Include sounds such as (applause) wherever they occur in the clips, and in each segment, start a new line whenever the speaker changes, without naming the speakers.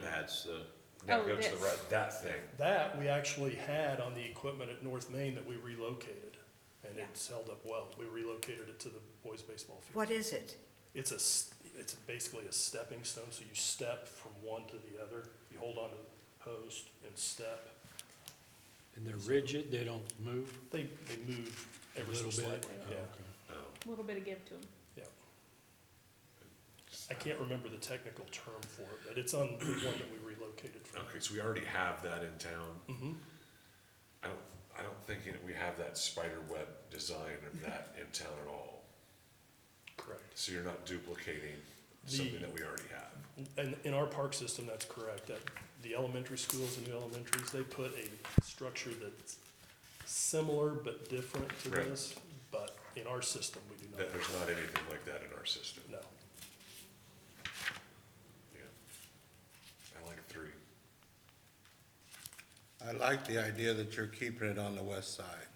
that's the, that
Oh,
goes to the
this.
right, that thing.
That we actually had on the equipment at North Main that we relocated, and
Yeah.
it's held up well. We relocated it to the boys' baseball field.
What is it?
It's a, s- it's basically a stepping stone, so you step from one to the other. You hold onto the post and step.
And they're rigid, they don't move
They, they move
a
ever so
little
slightly,
bit? Oh,
yeah,
okay.
Oh,
A little bit of give to them.
yeah. I can't remember the technical term for it, but it's on the one that we relocated from.
Okay, so we already have that in town.
Mhm.
I don't, I don't think that we have that spider web design of that in town at all.
Correct.
So you're not duplicating
The-
something that we already have.
And in our park system, that's correct. That the elementary schools and new elementaries, they put a structure that's similar but different to
Right.
this. But in our system, we do not,
That there's not anything like that in our system.
no.
Yeah. I like three.
I like the idea that you're keeping it on the west side.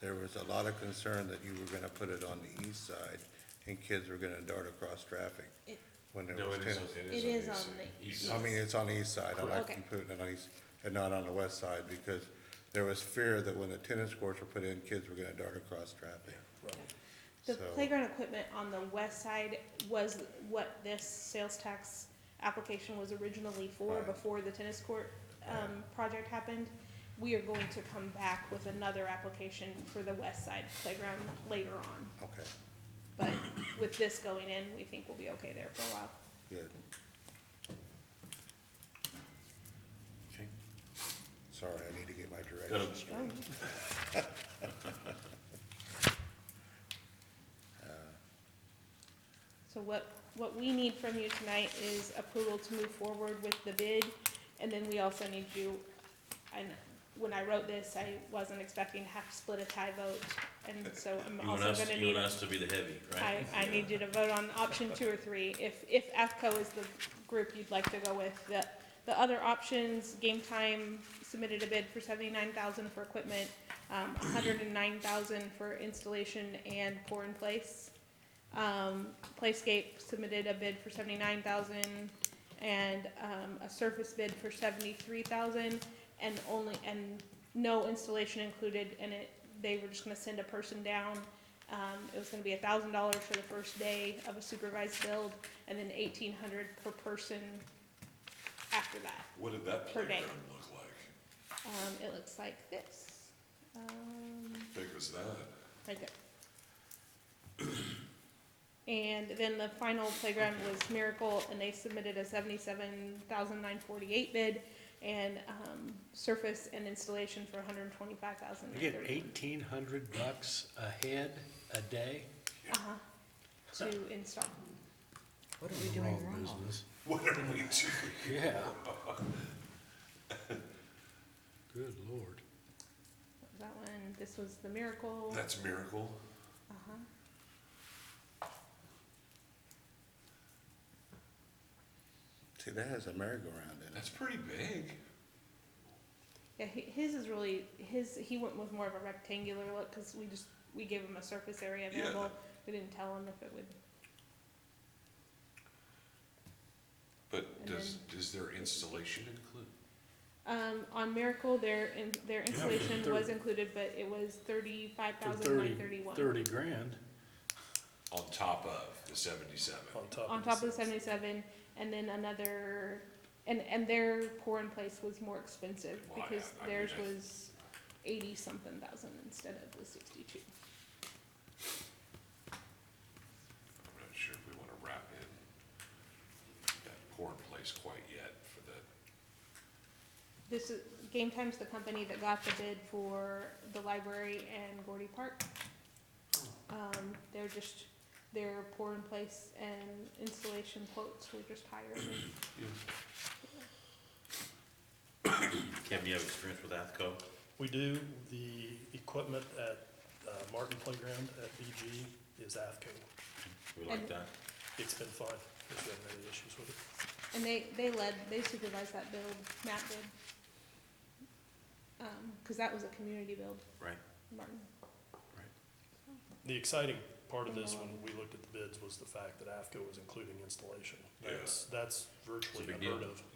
There was a lot of concern that you were gonna put it on the east side, and kids were gonna dart across traffic
It-
when there
No,
was
it is, on- E
tennis.
it is on the.
the
east
east.
I
side.
mean, it's on the east side, I like
Okay.
you putting it on the east, and not on the west side, because there was fear that when the tennis courts were put in, kids were gonna dart across traffic.
The
So-
playground equipment on the west side was what this sales tax application was originally for,
Right.
before the tennis court, um, project happened. We are going to come back with another application for the west side playground later on,
Okay,
but with this going in, we think we'll be okay there for a while.
good,
Okay.
sorry, I need to get my
No,
directions.
no.
So what, what we need from you tonight is approval to move forward with the bid, and then we also need you, and when I wrote this, I wasn't expecting to have to split a tie vote, and so I'm
You want
also
us,
gonna
you
need,
want us to be the heavy,
I,
right?
I need you to vote on option two or three, if, if AFCO is the group you'd like to go with, the, the other options, Game Time submitted a bid for seventy-nine thousand for equipment, um, hundred and nine thousand for installation and pour in place. Um, Playscape submitted a bid for seventy-nine thousand and, um, a surface bid for seventy-three thousand and only, and no installation included and it, they were just gonna send a person down. Um, it was gonna be a thousand dollars for the first day of a supervised build and then eighteen hundred per person after that.
What did that
Per day.
playground look like?
Um, it looks like this. Um,
Big was that?
like that. (clears throat) And then the final playground was Miracle, and they submitted a seventy-seven thousand nine forty-eight bid, and, um, surface and installation for a hundred and twenty-five thousand
You
nine
get
thirty.
eighteen hundred bucks a head a day?
Uh-huh, to install.
What are we doing wrong?
business.
What are we doing?
Yeah. Good lord.
That one, this was the Miracle,
That's miracle.
uh-huh.
See, that has a merry-go-round in it.
That's pretty big.
Yeah, hi- his is really, his, he went with more of a rectangular look, cause we just, we gave him a surface area
Yeah.
available. We didn't tell him if it would
But
And
does, does their installation include?
Um, on Miracle, their, in- their installation was included, but it was thirty-five
For
thousand
thirty
nine thirty-one.
Thirty grand.
On top of the seventy-seven?
On top
On
of
top of
this.
the seventy-seven, and then another, and, and their pour in place was more expensive,
Well, I-
because
I mean,
theirs
I-
was eighty-something thousand instead of the sixty-two.
I'm not sure if we wanna wrap in that poor place quite yet for the,
This is, Game Time's the company that got the bid for the library and Gordy Park. Um, they're just, their pour in place and installation quotes were just higher than
Kim, you have experience with AFCO?
We do, the equipment at uh, Martin Playground at BG is AFCO.
We like
And-
that?
It's been fine, there's been many issues with it.
And they, they led, they supervised that build, Matt did. Um, cause that was a community build,
Right.
Martin.
The exciting part of this, when we looked at the bids, was the fact that AFCO was including installation. That's, that's virtually
big
unheard
deal.
of.